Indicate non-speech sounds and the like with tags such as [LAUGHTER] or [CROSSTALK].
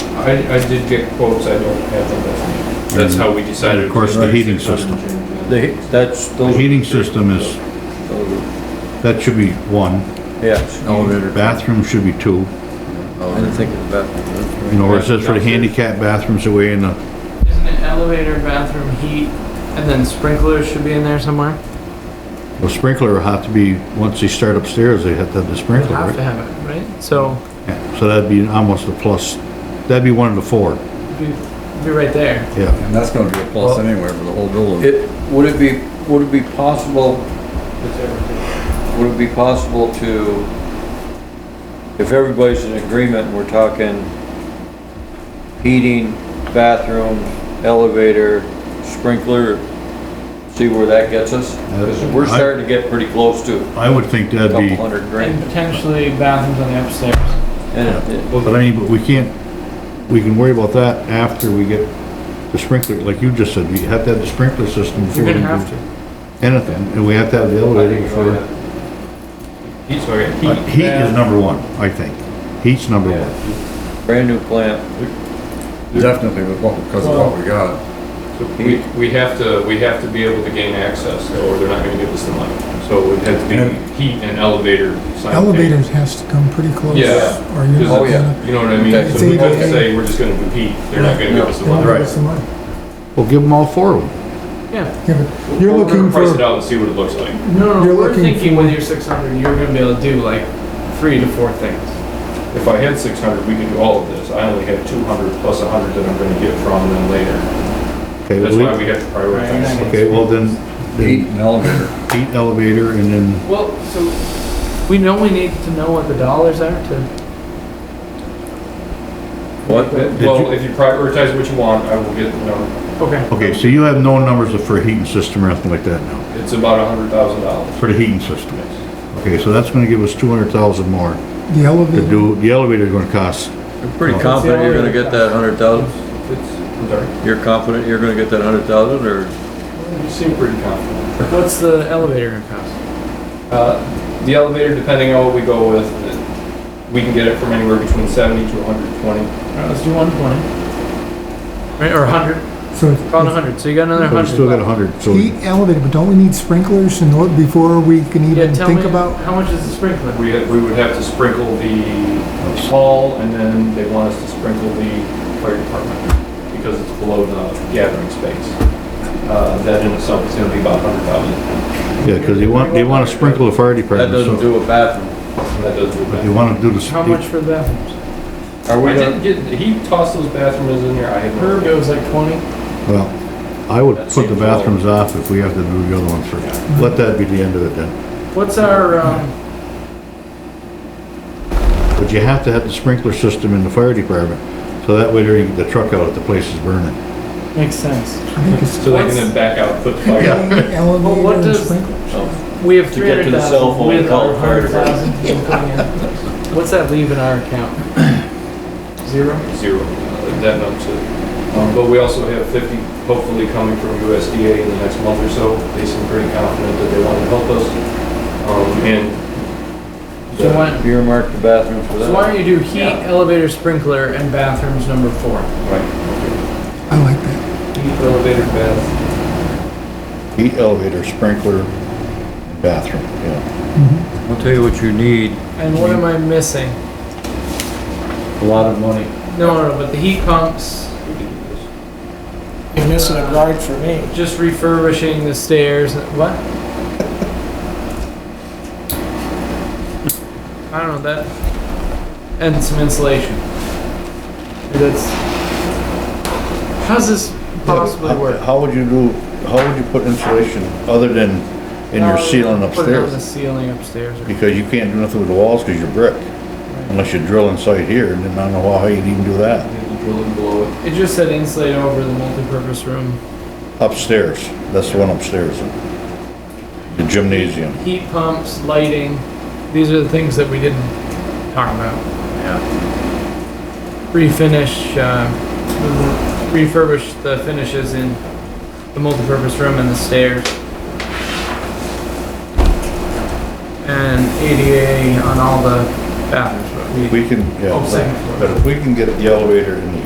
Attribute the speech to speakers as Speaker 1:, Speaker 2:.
Speaker 1: I, I did get quotes, I don't have them with me. That's how we decided.
Speaker 2: Mm-hmm. Of course, the heating system.
Speaker 3: The, that's,
Speaker 2: The
Speaker 3: those,
Speaker 2: heating system is, that should be one.
Speaker 3: yeah,
Speaker 4: Elevator.
Speaker 2: Bathroom should be two.
Speaker 3: I didn't think of that.
Speaker 2: You know, where it says for the handicap bathrooms away in the,
Speaker 5: Isn't it elevator, bathroom, heat, and then sprinklers should be in there somewhere?
Speaker 2: the sprinkler will have to be, once they start upstairs, they have to have the
Speaker 5: You
Speaker 2: sprinkler,
Speaker 5: have to
Speaker 2: right?
Speaker 5: have it, right? So,
Speaker 2: Yeah, So that'd be almost a plus, that'd be one of the four,
Speaker 5: it'd be, it'd be right there.
Speaker 2: yeah.
Speaker 4: And that's gonna be a plus anywhere for the whole building.
Speaker 3: It, would it be, would it be possible, would it be possible to, if everybody's in agreement, we're talking heating, bathroom, elevator, sprinkler, see where that gets us? Because we're starting to get pretty close to a
Speaker 2: I would think Uh, that'd
Speaker 3: couple
Speaker 2: be,
Speaker 3: hundred
Speaker 5: And
Speaker 3: grand.
Speaker 5: potentially bathrooms on the upstairs.
Speaker 3: And it-
Speaker 2: but I mean, but we can't, we can worry about that after we get the sprinkler, like you just said, we have to have the sprinkler system before
Speaker 5: You're
Speaker 2: we
Speaker 5: gonna
Speaker 2: do
Speaker 5: have to.
Speaker 2: anything, and we have to have the elevator before.
Speaker 1: Heat, sorry,
Speaker 2: Uh,
Speaker 1: heat.
Speaker 2: Heat is number one, I think. Heat's number one.
Speaker 3: brand new plant,
Speaker 4: Definitely with what, because of what we got.
Speaker 1: We, we have to, we have to be able to gain access, or they're not gonna give us the money. So it would have to be heat and elevator.
Speaker 6: Elevators has to come pretty close.
Speaker 1: Yeah.
Speaker 6: Or you're
Speaker 1: Oh,
Speaker 6: not
Speaker 3: yeah.
Speaker 6: gonna,
Speaker 1: You know what I mean?
Speaker 3: Okay.
Speaker 1: So we couldn't say, we're just gonna do heat, they're not gonna give us the
Speaker 6: you won't
Speaker 1: money.
Speaker 6: give us the money.
Speaker 2: Well, give them all four of them.
Speaker 5: Yeah.
Speaker 6: Yeah, but
Speaker 1: We're
Speaker 6: You're
Speaker 1: gonna
Speaker 6: looking
Speaker 1: Price it
Speaker 6: for,
Speaker 1: out and see what it looks like.
Speaker 5: No, no,
Speaker 6: You're
Speaker 5: we're
Speaker 6: looking
Speaker 5: thinking with your six hundred, you're gonna be able to do like three to four things.
Speaker 1: If I had six hundred, we could do all of this. I only have two hundred plus a hundred that I'm gonna get from them later.
Speaker 2: Okay,
Speaker 1: That's why
Speaker 2: well,
Speaker 1: we have to
Speaker 5: Right.
Speaker 1: prioritize.
Speaker 2: okay, well then,
Speaker 4: Heat
Speaker 2: then
Speaker 4: and elevator.
Speaker 2: heat, elevator, and then,
Speaker 5: Well, so, we know we need to know what the dollars are to.
Speaker 1: What?
Speaker 2: Did
Speaker 1: Well,
Speaker 2: you-
Speaker 1: if you prioritize what you want, I will get the number.
Speaker 5: Okay.
Speaker 2: okay, so you have no numbers for a heating system or anything like that now,
Speaker 1: It's about a hundred thousand dollars.
Speaker 2: for the heating system. Okay, so that's gonna give us two hundred thousand more
Speaker 6: the
Speaker 2: to
Speaker 6: elevator,
Speaker 2: do, the elevator's gonna cost,
Speaker 3: I'm pretty confident you're gonna get that hundred thousand?
Speaker 1: It's, I'm sorry.
Speaker 3: You're confident you're gonna get that hundred thousand, or?
Speaker 1: You seem pretty confident.
Speaker 5: What's the elevator gonna cost?
Speaker 1: Uh, the elevator, depending on what we go with, it- we can get it from anywhere between seventy to hundred and twenty.
Speaker 5: Alright, Uh, let's do one twenty. Right, or a hundred,
Speaker 6: so
Speaker 5: call it a hundred, so you got another
Speaker 2: so we
Speaker 5: hundred.
Speaker 2: still got a hundred, so
Speaker 6: heat, elevator, but don't we need sprinklers in order, before we can
Speaker 5: Yeah,
Speaker 6: even
Speaker 5: tell
Speaker 6: think
Speaker 5: me,
Speaker 6: about?
Speaker 5: how much is the sprinkler?
Speaker 1: We, we would have to sprinkle the hall and then they want us to sprinkle the fire department because it's below the gathering space. Uh, that in itself is gonna be about hundred thousand.
Speaker 2: Yeah, because they want, they want to sprinkle the fire
Speaker 3: That
Speaker 2: department,
Speaker 3: doesn't
Speaker 2: so
Speaker 3: do a bathroom.
Speaker 1: That does do
Speaker 2: they
Speaker 1: that.
Speaker 2: want to do the.
Speaker 5: How much for the bathrooms?
Speaker 3: Are we
Speaker 1: I
Speaker 3: gonna?
Speaker 1: didn't get, he tossed those bathrooms in there. I have no
Speaker 5: Herb,
Speaker 1: idea.
Speaker 5: it was like twenty.
Speaker 2: Well, I would
Speaker 3: That
Speaker 2: put the
Speaker 3: seems low.
Speaker 2: bathrooms off if we have to do the other ones first. Let that be the end of it then.
Speaker 5: What's our, um,
Speaker 2: But you have to have the sprinkler system in the fire department, so that way there you get the truck out if the place is burning.
Speaker 5: makes sense.
Speaker 6: I think it's
Speaker 1: So they can then back out, put the fire.
Speaker 5: But what
Speaker 6: elevator and
Speaker 5: does-
Speaker 6: sprinkler.
Speaker 5: We have
Speaker 3: To
Speaker 5: three
Speaker 3: get to
Speaker 5: hundred
Speaker 3: the cell
Speaker 5: thousand
Speaker 3: phone,
Speaker 5: with
Speaker 3: call
Speaker 5: our
Speaker 3: fire
Speaker 5: hundred thousand coming in. What's that leave in our account?
Speaker 3: [CLEARS THROAT]
Speaker 5: Zero?
Speaker 1: zero, uh, that number too. Um, But we also have 50, hopefully coming from USDA in the next month or so. They seem pretty confident that they want to help us. Um, And
Speaker 5: So why,
Speaker 3: Earmark the bathroom for
Speaker 5: so
Speaker 3: that.
Speaker 5: why don't you do heat, elevator, sprinkler, and bathrooms number four?
Speaker 6: I like that.
Speaker 1: heat, elevator, bath,
Speaker 2: Heat elevator, sprinkler, bathroom, yeah.
Speaker 3: I'll tell you what you need,
Speaker 5: And what am I missing?
Speaker 3: a lot of money.
Speaker 5: No, no, but the heat pumps,
Speaker 7: You're missing a guard for me.
Speaker 5: just refurbishing the stairs, what? I don't know, that, and some insulation. That's, how's this possibly work?
Speaker 2: How would you do, how would you put insulation other than in your
Speaker 5: Uh,
Speaker 2: ceiling
Speaker 5: Put it on the
Speaker 2: upstairs?
Speaker 5: ceiling upstairs. or-
Speaker 2: Because you can't do nothing with the walls because you're brick, unless you drill inside here, and then I don't know how you'd even do that.
Speaker 1: and the drilling below it.
Speaker 5: It just said insulate over the multipurpose room.
Speaker 2: Upstairs, that's the one upstairs, the gymnasium.
Speaker 5: Heat pumps, lighting, these are the things that we didn't talk about. Yeah. Refinish, uh, refurbish the finishes in the multipurpose room and the stairs. And ADA on all the bathrooms, but we,
Speaker 2: We can,
Speaker 5: Oh, second
Speaker 2: yeah,
Speaker 5: floor.
Speaker 2: but if we can get the elevator in the